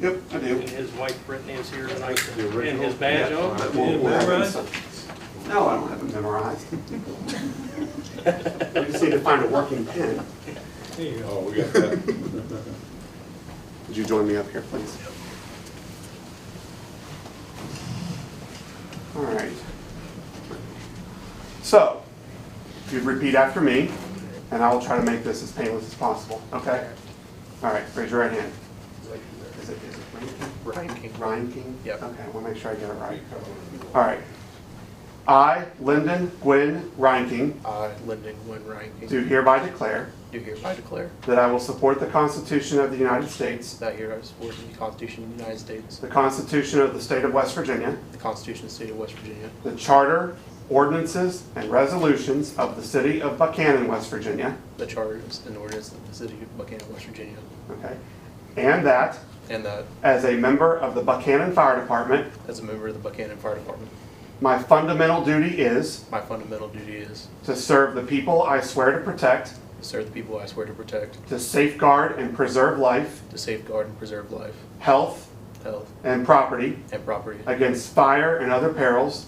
Yep, I do. And his wife Brittany is here tonight, The and original? his badge Yeah. on. That You won't didn't work. memorize? No, I don't have it memorized. I just need to find a working pen. There you go. Oh, we got that. Would you join me up here, please? All right. So, if you'd repeat after me, and I will try to make this as painless as possible, okay? All right, raise your right hand. Is it, is it Ryan King? Ryan King. Ryan King? Yep. Okay, I want to make sure I get it right. All right. I, Lyndon Gwynn Reinking, I, Lyndon Gwynn Reinking, do hereby declare do hereby declare that I will support the Constitution of the United States that hereby support the Constitution of the United States, The Constitution of the State of West Virginia, the Constitution of the State of West Virginia, the Charter, ordinances, and resolutions of the City of Buchanan, West Virginia, the charters and ordinances of the City of Buchanan, West Virginia, okay? And that, and that as a member of the Buchanan Fire Department, as a member of the Buchanan Fire Department, my fundamental duty is my fundamental duty is to serve the people I swear to protect, to serve the people I swear to protect, to safeguard and preserve life, to safeguard and preserve life, health, health, and property and property against fire and other perils,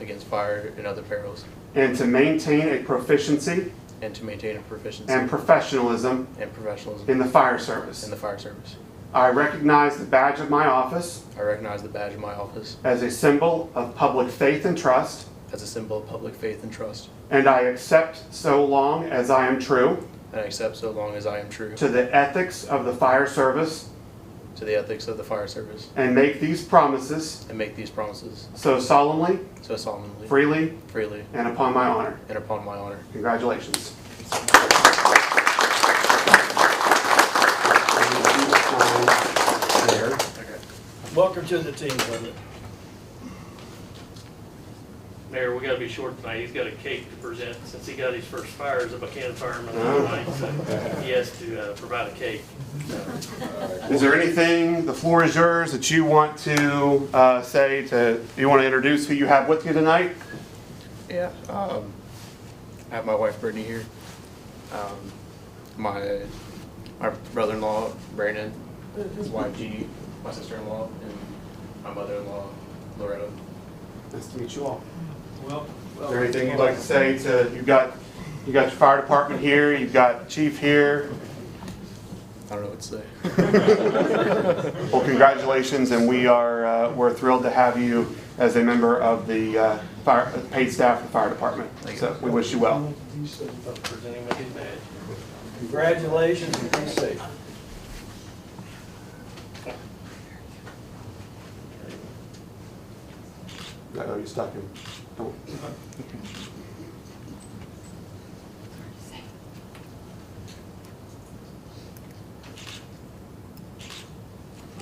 against fire and other perils, and to maintain a proficiency and to maintain a proficiency and professionalism and professionalism in the fire in service. the fire service. I recognize the badge of my office I recognize the badge of my office as a symbol of public faith and trust, as a symbol of public faith and trust, and I accept so long as I am true and I accept so long as I am true to the ethics of the fire service to the ethics of the fire service and make these promises and make these promises so solemnly, so solemnly, freely, freely, and upon my honor. and upon my honor. Congratulations. Welcome to the team, brother. Mayor, we gotta be short tonight, he's got a cake to present, since he got his first fire as a Buchanan fireman Oh. tonight, so he has to uh, provide a cake. Is there anything, the floor is yours, that you want to uh, say to, you want to introduce who you have with you tonight? Yeah. Um, I have my wife Brittany here. Um, my my brother-in-law Brandon, his wife G, my sister-in-law, and my mother-in-law Loretta. Nice to meet you all. Well, Is there anything you'd like to say to, you've got, you got your fire department here, you've got chief here, I don't know what to say. Well, congratulations, and we are, uh, we're thrilled to have you as a member of the uh, fire, paid staff of the fire department. Thank you. So we wish you well. Presenting with his badge. Congratulations and be safe. Oh, you stuck him. Don't-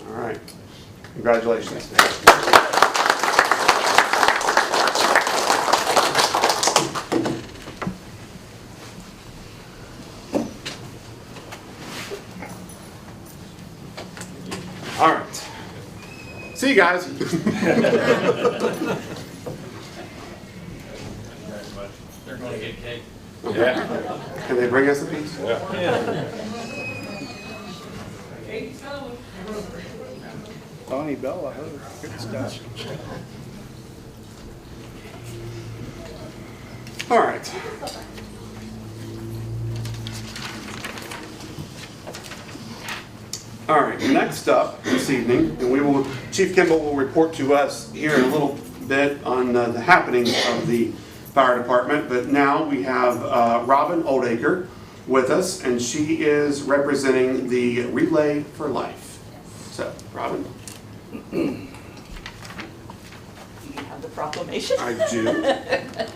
All right. Congratulations. All right. See you guys. They're gonna get cake. Can they bring us a piece? Donnie Bell, I heard. Good stuff. All right. All right, next up this evening, and we will, Chief Kimball will report to us here in a little bit on uh, the happenings of the fire department, but now we have uh, Robin Oldacre with us, and she is representing the Relay for Life. So, Robin? You have the proclamation. I do.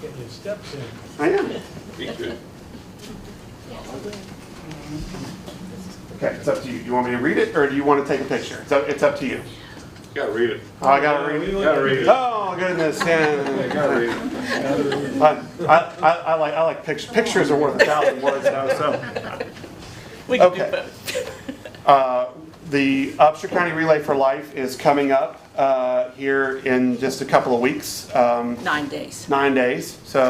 Getting your steps in. I am. Be good. Okay, it's up to you. You want me to read it, or do you want to take a picture? It's up, it's up to you. Gotta read it. Oh, I gotta read it? Gotta read it. Oh goodness, Yeah, yeah. Gotta read it. I, I, I I like, I like pictures. Pictures are worth a thousand words now, so. We can okay. do both. Uh, The Upshur County Relay for Life is coming up, uh, here in just a couple of weeks, um, Nine days. nine days. So